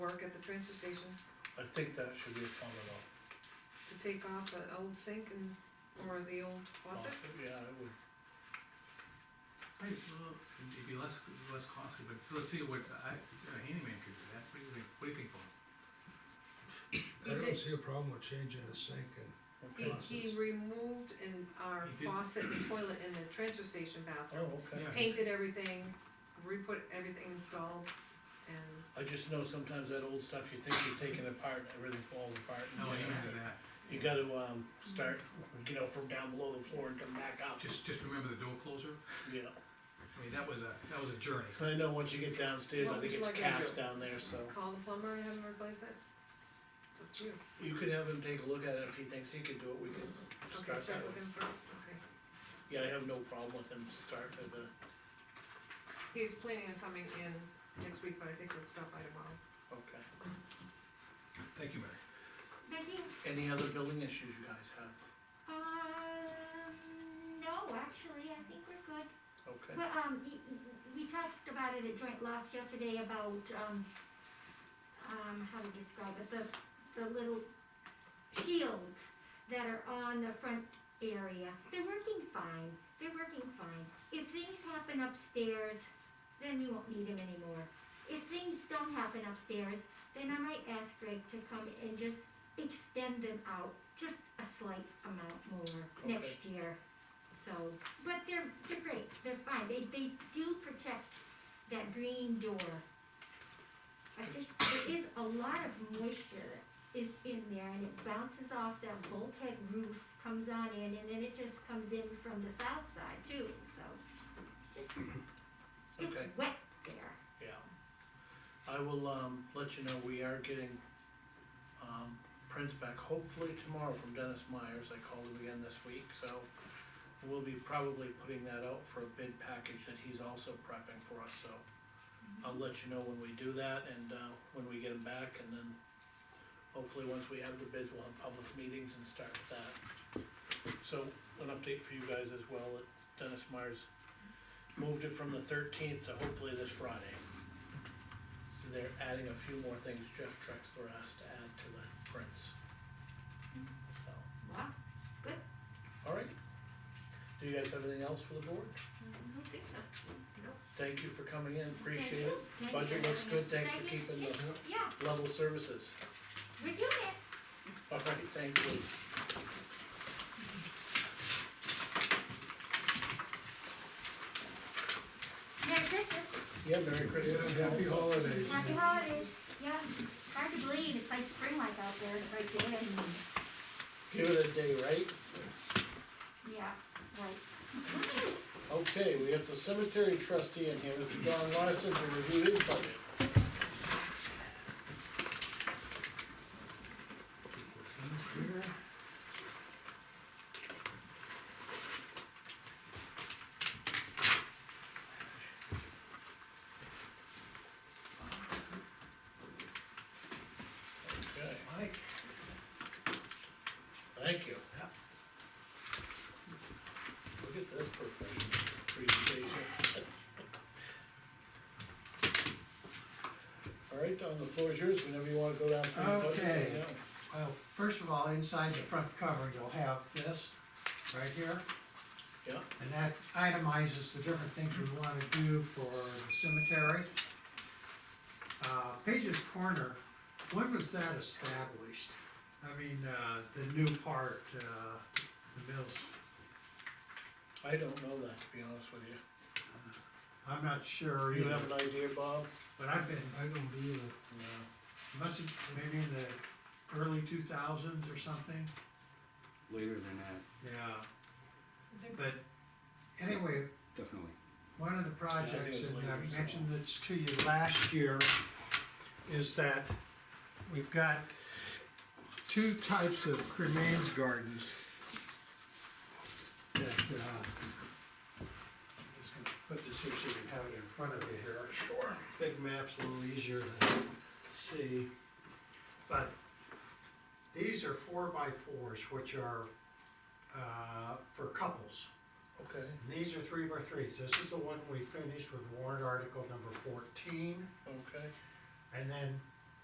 look at the transfer station I think that should be a common law. to take off the old sink and, or the old faucet? Yeah, I would, Right, well, it'd be less, less costly, but so let's see what, I, a handyman could do that, what do you think, what do you think, Paul? He I don't did- see a problem with changing a sink and, okay, He, he removed in our He did. faucet and toilet in the transfer station bathroom, oh, okay. Yeah. painted everything, re-put everything installed, and I just know sometimes that old stuff, you think you're taking it apart, everything falls apart. and No, you amen gotta- to that, You gotta, um, start, you know, from down below the floor and come back up, just, just remember the door closer, yeah. I mean, that was a, that was a journey. I know once you get downstairs, I What think would you like me it's to cast do? down there, so. call the plumber and have him replace it? It's up to you. You could have him take a look at it, if he thinks he could do it, we could Okay, start check that with way. him first, okay. Yeah, I have no problem with him starting with the, He's planning on coming in next week, but I think he'll stop by tomorrow. okay. Thank you, Mary. Becky, Any other building issues you guys have? um, no, actually, I think we're good. Okay, Well, um, y- y- we talked about it at joint loss yesterday about, um, um, how to describe it, the, the little shields that are on the front area. They're working fine, they're working fine. If things happen upstairs, then we won't need them anymore. If things don't happen upstairs, then I might ask Greg to come and just extend them out, just a slight amount more Okay. next year. So, but they're, they're great, they're fine, they, they do protect that green door. But there's, there is a lot of moisture that is in there and it bounces off that bulkhead roof, comes on in, and then it just comes in from the south side too, so. It's just, Okay. it's wet there. yeah. I will, um, let you know, we are getting, um, prints back hopefully tomorrow from Dennis Myers, I called him again this week, so. We'll be probably putting that out for a bid package that he's also prepping for us, so. I'll let you know when we do that and, uh, when we get him back and then. Hopefully, once we have the bids, we'll have public meetings and start with that. So, an update for you guys as well, that Dennis Myers moved it from the thirteenth to hopefully this Friday. So they're adding a few more things Jeff Trexler asked to add to the prints. So, Wow, all right. Do you guys have anything else for the board? I don't think so. Thank you for coming in, appreciate Thank you. it. Thank you Budget for looks having good, us. thanks for Thank you. keeping Yes, the Yeah, level services. we're doing it. All right, thank you. Merry Christmas, Yeah, Merry Christmas. Yeah, happy Also. holidays. happy holidays, yeah, hard to believe, it's like spring-like out there, right there, and, Give it a day, right? yeah, right. Okay, we have the cemetery trustee in here, Mr. Don Larson, to review his budget. Okay, Mike? thank you. Yeah. Look at this professional presentation. All right, Don, the floor is yours, whenever you wanna go down through the budget. Okay. yeah. Well, first of all, inside the front cover, you'll have this right here, Yeah, and that itemizes the different things we wanna do for the cemetery. Uh, Page's Corner, when was that established? I mean, uh, the new part, uh, the mills, I don't know that, to be honest with you. I'm not sure You have either, an idea, Bob? but I've been, I don't either. No. must have, maybe in the early two thousands or something, later than that, yeah. But anyway, definitely. One of the projects, Yeah, I think it and was I later, so- mentioned this to you last year, is that we've got two types of cremains gardens. That, uh, I'm just gonna put this here so you can have it in front of you here. Sure. Big map's a little easier to see, but these are four by fours, which are, uh, for couples. Okay, And These are three by threes. This is the one we finished with warrant article number fourteen. okay, And then